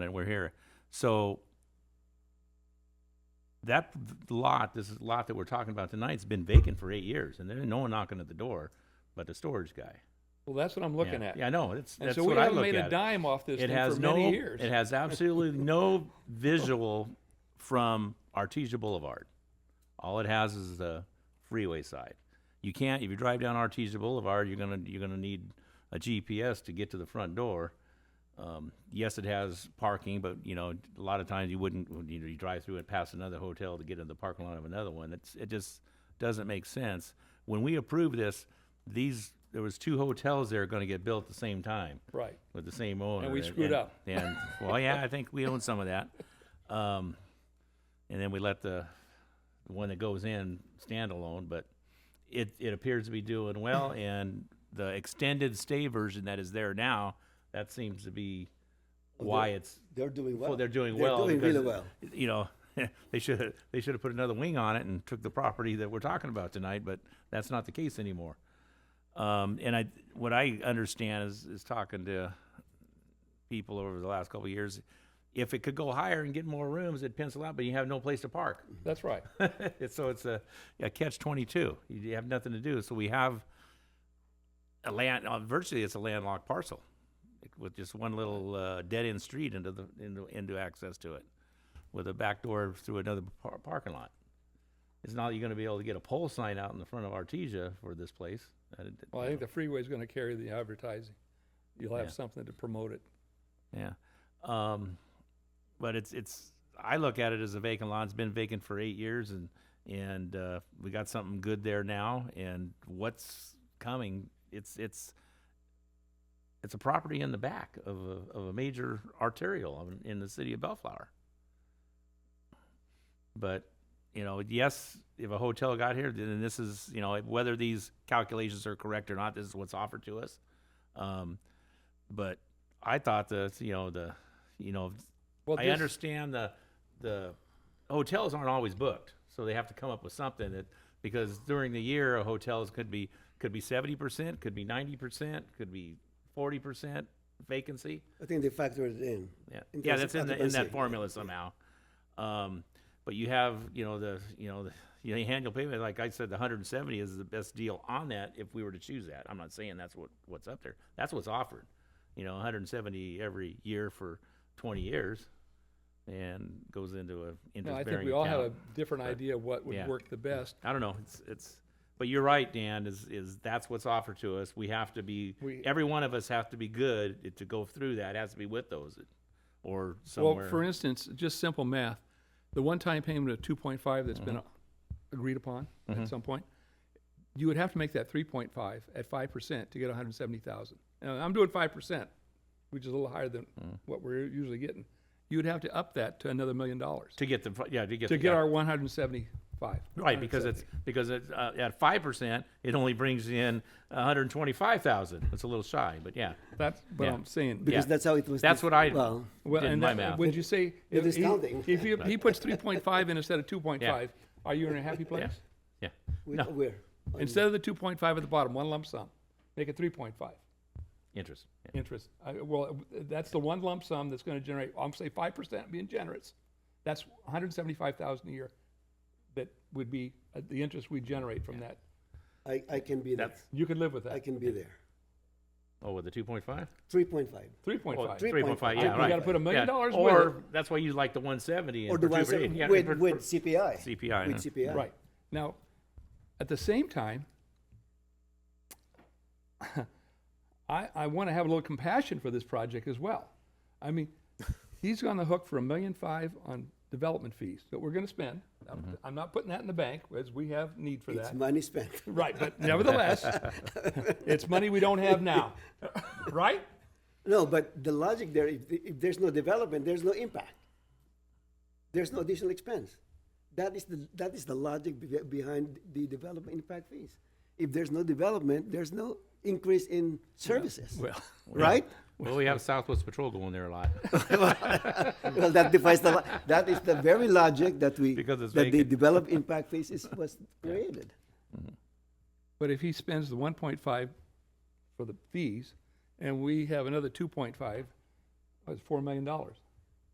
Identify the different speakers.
Speaker 1: that we're here. So that lot, this is lot that we're talking about tonight's been vacant for eight years and there's no one knocking at the door but the storage guy.
Speaker 2: Well, that's what I'm
Speaker 1: Yeah.
Speaker 2: looking at.
Speaker 1: Yeah, I know. It's,
Speaker 2: And
Speaker 1: that's
Speaker 2: so we
Speaker 1: what I
Speaker 2: haven't
Speaker 1: look
Speaker 2: made a
Speaker 1: at.
Speaker 2: dime off this
Speaker 1: It
Speaker 2: thing
Speaker 1: has
Speaker 2: for
Speaker 1: no,
Speaker 2: many years.
Speaker 1: it has absolutely no visual from Artesia Boulevard. All it has is the freeway side. You can't, if you drive down Artesia Boulevard, you're gonna, you're gonna need a GPS to get to the front door. Um, yes, it has parking, but you know, a lot of times you wouldn't, when, you know, you drive through and pass another hotel to get in the parking lot of another one. It's, it just doesn't make sense. When we approved this, these, there was two hotels there gonna get built at the same time
Speaker 2: Right.
Speaker 1: with the same owner.
Speaker 2: we screwed up.
Speaker 1: And, well, yeah, I think we own some of that. Um, and then we let the, the one that goes in stand alone, but it, it appears to be doing well. And the extended stay version that is there now, that seems to be why it's,
Speaker 3: They're doing well.
Speaker 1: well, they're doing well.
Speaker 3: They're doing
Speaker 1: because,
Speaker 3: really well.
Speaker 1: You know, they should, they should have put another wing on it and took the property that we're talking about tonight, but that's not the case anymore. Um, and I, what I understand is, is talking to people over the last couple of years, if it could go higher and get more rooms, it'd pencil out, but you have no place to park.
Speaker 2: That's right.
Speaker 1: so it's a, a catch twenty-two. You have nothing to do. So we have a land, uh, virtually it's a landlocked parcel with just one little uh, dead-end street into the, into, into access to it with a back door through another par- parking lot. It's not, you're gonna be able to get a pole sign out in the front of Artesia for this place. I didn't-
Speaker 2: Well, I think the freeway's going to carry the advertising. You'll have
Speaker 1: Yeah.
Speaker 2: something to promote it.
Speaker 1: Yeah. Um, but it's, it's, I look at it as a vacant lot. It's been vacant for eight years and, and, uh, we got something good there now and what's coming, it's, it's, it's a property in the back of a, of a major arterial in- in the city of Bellflower. But, you know, yes, if a hotel got here, then this is, you know, whether these calculations are correct or not, this is what's offered to us. Um, but I thought that you know the you know
Speaker 2: Well,
Speaker 1: I
Speaker 2: this-
Speaker 1: understand the the hotels aren't always booked, so they have to come up with something that because during the year a hotels could be could be seventy percent, could be ninety percent, could be forty percent vacancy.
Speaker 3: I think they factor it in.
Speaker 1: Yeah,
Speaker 3: In
Speaker 1: yeah,
Speaker 3: terms
Speaker 1: that's
Speaker 3: of
Speaker 1: in, the, in
Speaker 3: occupancy.
Speaker 1: that formula somehow. Um, but you have, you know, the, you know, the, you know, annual payment, like I said, the hundred and seventy is the best deal on that if we were to choose that. I'm not saying that's what, what's up there. That's what's offered. You know, hundred and seventy every year for twenty years and goes into a
Speaker 2: No, I
Speaker 1: interest
Speaker 2: think we
Speaker 1: bearing
Speaker 2: all have a
Speaker 1: account.
Speaker 2: different idea of what
Speaker 1: yeah.
Speaker 2: would work the best.
Speaker 1: I don't know. It's, it's, but you're right, Dan, is, is that's what's offered to us. We have to be,
Speaker 2: We-
Speaker 1: every one of us have to be good to go through that. It has to be with those or
Speaker 2: Well,
Speaker 1: somewhere.
Speaker 2: for instance, just simple math, the one-time payment of two point five that's
Speaker 1: Uh-huh.
Speaker 2: been agreed upon at some point, you would have to make that three point five at five percent to get one hundred seventy thousand. Now, I'm doing five percent, which is a little higher than
Speaker 1: Hmm.
Speaker 2: what we're usually getting. You would have to up that to another million dollars
Speaker 1: To get the, yeah, to get.
Speaker 2: to
Speaker 1: the-
Speaker 2: get
Speaker 1: yeah.
Speaker 2: our one hundred seventy-five.
Speaker 1: Right, because it's, because it's, uh, at five percent, it only brings in a hundred and twenty-five thousand. It's a little shy, but yeah.
Speaker 2: That's what
Speaker 1: Yeah.
Speaker 2: I'm saying.
Speaker 3: Because
Speaker 1: Yeah.
Speaker 3: that's how it was.
Speaker 1: That's
Speaker 3: def-
Speaker 1: what I-
Speaker 3: Well,
Speaker 2: Well,
Speaker 1: Did
Speaker 2: and
Speaker 1: my
Speaker 2: that-
Speaker 1: math.
Speaker 2: would you say? if
Speaker 3: is
Speaker 2: he-
Speaker 3: counting.
Speaker 2: If he, he puts three point five in instead of two point five, are you in a happy place?
Speaker 1: Yeah, yeah.
Speaker 3: we,
Speaker 1: No,
Speaker 3: we're.
Speaker 2: Instead of the two point five at the bottom, one lump sum, make it three point five
Speaker 1: interest. yeah.
Speaker 2: interest. I, well, that's the one lump sum that's going to generate. I'm say five percent, being generous. That's one hundred seventy-five thousand a year. That would be uh, the interest we generate from that.
Speaker 3: I, I can be there.
Speaker 1: That's-
Speaker 2: You could live with
Speaker 3: I
Speaker 2: that.
Speaker 3: can be there.
Speaker 1: Oh, with the two point five? Oh,
Speaker 3: Three point five.
Speaker 2: Three point five.
Speaker 3: three-
Speaker 1: Three point five, yeah,
Speaker 3: You
Speaker 1: right.
Speaker 2: gotta put a million
Speaker 1: Yeah,
Speaker 2: dollars with
Speaker 1: Or, that's why you like the one seventy.
Speaker 3: Or the one seven with, with CPI.
Speaker 1: CPI,
Speaker 3: With
Speaker 1: huh?
Speaker 3: CPI.
Speaker 2: Right. Now, at the same time, I, I want to have a little compassion for this project as well. I mean, he's on the hook for a million five on development fees that we're going to spend. I'm, I'm not putting that in the bank, as we have need for
Speaker 3: Mm-hmm. It's
Speaker 2: that.
Speaker 3: money spent.
Speaker 2: Right, but nevertheless, it's money we don't have now, right?
Speaker 3: No, but the logic there, if, the- if there's no development, there's no impact. There's no additional expense. That is the, that is the logic be- behind the development impact fees. If there's no development, there's no increase in services,
Speaker 2: Well,
Speaker 3: right?
Speaker 1: Well, we have Southwest Patrol going there a lot.
Speaker 3: Well, that defies the, lo- that is the very logic that we,
Speaker 1: Because it's
Speaker 3: that the
Speaker 1: vacant.
Speaker 3: development impact fees is, was created.
Speaker 2: But if he spends the one point five for the fees, and we have another two point five, that's four million dollars.